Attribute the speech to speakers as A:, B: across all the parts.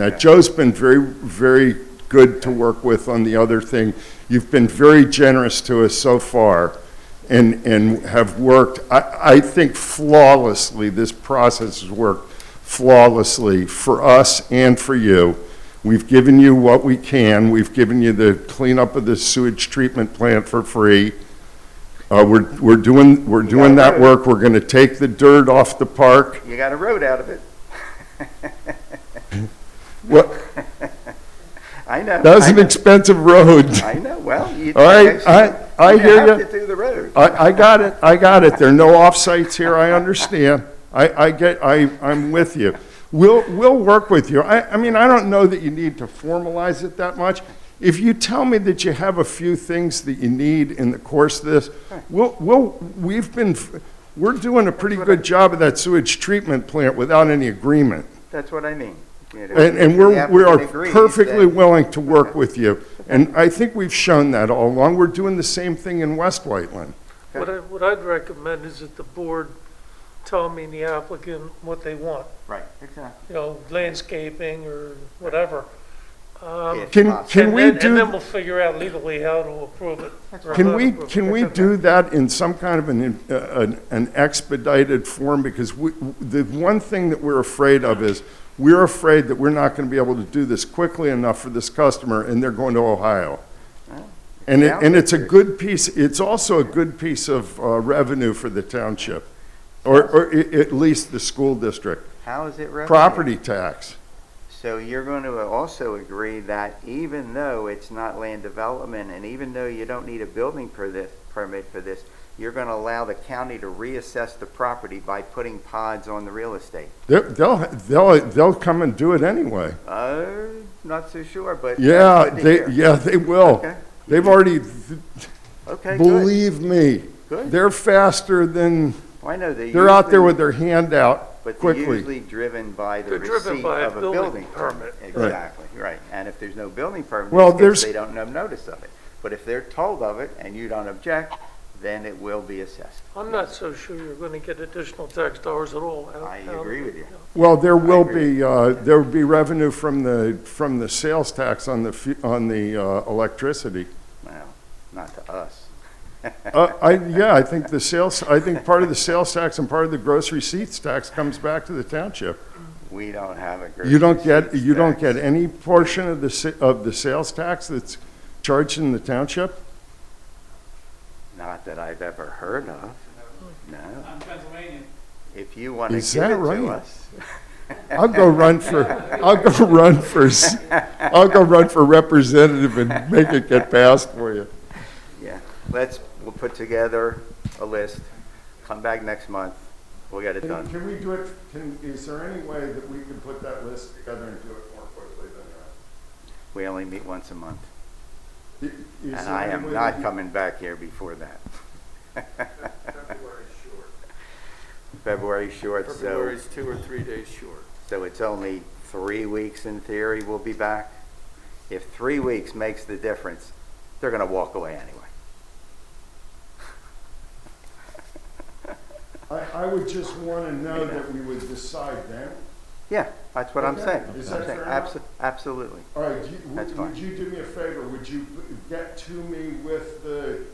A: Now, Joe's been very, very good to work with on the other thing. You've been very generous to us so far and, and have worked, I, I think flawlessly, this process has worked flawlessly for us and for you. We've given you what we can. We've given you the cleanup of the sewage treatment plant for free. Uh, we're, we're doing, we're doing that work. We're gonna take the dirt off the park.
B: You got a road out of it.
A: Well-
B: I know.
A: That's
B: I
A: an
B: know.
A: expensive road.
B: I know, well, you.
A: All right, I, I hear
B: You
A: you.
B: have to do the road.
A: I, I got it, I got it. There are no offsites here, I understand. I, I get, I, I'm with you. We'll, we'll work with you. I, I mean, I don't know that you need to formalize it that much. If you tell me that you have a few things that you need in the course of this, we'll, we'll, we've been, we're doing a pretty good job of that sewage treatment plant without any agreement.
B: That's what I mean. you know.
A: And, and
B: The
A: we're, we are
B: applicant agrees
A: perfectly
B: that-
A: willing to work with you. And I think we've shown that all along. We're doing the same thing in West Whiteland.
C: What I, what I'd recommend is that the board tell me and the applicant what they want,
B: Right, exactly.
C: you know, landscaping or whatever. Um,
B: If
A: Can,
B: possible.
A: can
C: and
A: we
C: then- And then
A: do,
C: we'll figure out legally how to approve it. or
A: can
C: not
A: we,
C: approve it.
A: can we do that in some kind of an, uh, an- an expedited form? Because we, the one thing that we're afraid of is, we're afraid that we're not going to be able to do this quickly enough for this customer, and they're going to Ohio. And it, and it's a good piece, it's also a good piece of uh, revenue for the township, or, or i- at least the school district,
B: How is it revenue?
A: property tax.
B: So you're going to also agree that even though it's not land development and even though you don't need a building per this, permit for this, you're going to allow the county to reassess the property by putting pods on the real estate?
A: They'll, they'll, they'll they'll come and do it anyway.
B: Uh, not so sure, but. that's
A: Yeah,
B: good to
A: they,
B: hear.
A: yeah, they will.
B: Okay.
A: They've already,
B: Okay, good.
A: believe me,
B: Good.
A: they're faster than,
B: Well, I know they
A: they're out there
B: usually-
A: with their hand out
B: But they're
A: quickly.
B: usually driven by the
C: They're driven
B: receipt
C: by a
B: of a
C: building
B: building permit.
A: Right.
B: Exactly, right. And if there's no building permit,
A: Well,
B: it's 'cause
A: there's-
B: they don't know notice of it. But if they're told of it and you don't object, then it will be assessed.
C: I'm not so sure you're gonna get additional tax dollars at all. out-
B: I
C: out of
B: agree
C: it,
B: with you.
A: Well, there will
B: agree.
A: be, uh, there will be revenue from the, from the sales tax on the, fu- on the uh, electricity.
B: Well, not to us.
A: Uh, I, yeah, I think the sales, I think part of the sales tax and part of the gross receipts tax comes back to the township.
B: We don't have a. grocery
A: You don't get,
B: receipts
A: you don't
B: tax.
A: get any portion of the, sa- of the sales tax that's charged in the township?
B: Not that I've ever heard of, no.
D: I'm Pennsylvania.
B: If you want to
A: Is
B: give it
A: that
B: to
A: right?
B: us.
A: I'll go run for, I'll go run for, s- I'll go run for representative and make it get passed for you.
B: Let's, we'll put together a list, come back next month, we'll get it done.
A: Can we do it, can, is there any way that we can put that list together and do it more quickly than
B: We only meet once a month,
A: that?
B: and I am not coming back here before that. February's short, so,
D: February's two or three days short.
B: so it's only three weeks in theory we'll be back. If three weeks makes the difference, they're gonna walk away anyway.
A: I, I would just want to know that we would decide then.
B: Yeah, that's what I'm
A: Okay.
B: saying.
A: Is
B: I'm
A: that
B: saying,
A: fair enough?
B: abso- Absolutely.
A: All right, do you-
B: That's
A: would
B: fine.
A: would you do me a favor? Would you get to me with the,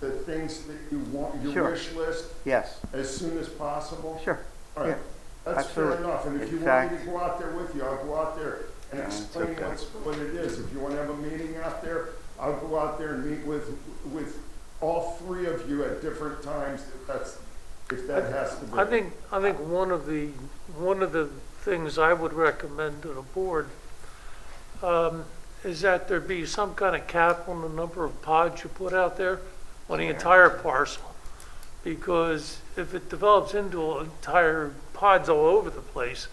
A: the things that you want, your
B: Sure.
A: wish list,
B: Yes,
A: as soon as possible?
B: sure.
A: All right, that's fair
B: absolutely.
A: enough, and if
B: In
A: you want me to
B: fact-
A: go out there with you, I'll go out there and
B: Yeah, it's
A: explain
B: okay.
A: what's, what it is. If you want to have a meeting out there, I'll go out there and meet with, with all three of you at different times, if that's, if that has to be.
C: I think, I think one of the, one of the things I would recommend to the board um, is that there be some kind of cap on the number of pods you put out there on the entire parcel. Because if it develops into entire pods all over the place,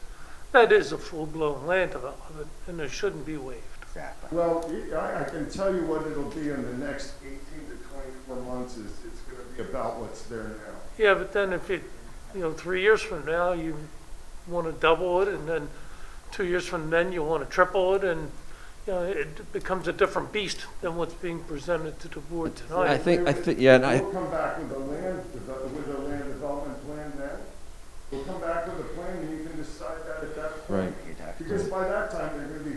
C: that is a full-blown land development, and it shouldn't be waived.
B: Exactly.
A: Well, I, I can tell you what it'll be in the next eighteen to twenty-four months is, it's gonna be about what's there now.
C: Yeah, but then if it, you know, three years from now, you want to double it, and then two years from then, you want to triple it, and, you know, it becomes a different beast than what's being presented to the board
E: I
C: tonight.
E: think, I think, yeah, and I,
A: We'll come back with a land, devel- with a land development plan then. We'll come back with a plan and you can decide that at that point.
E: Right.
B: You'd have
A: Because by that time, they're gonna be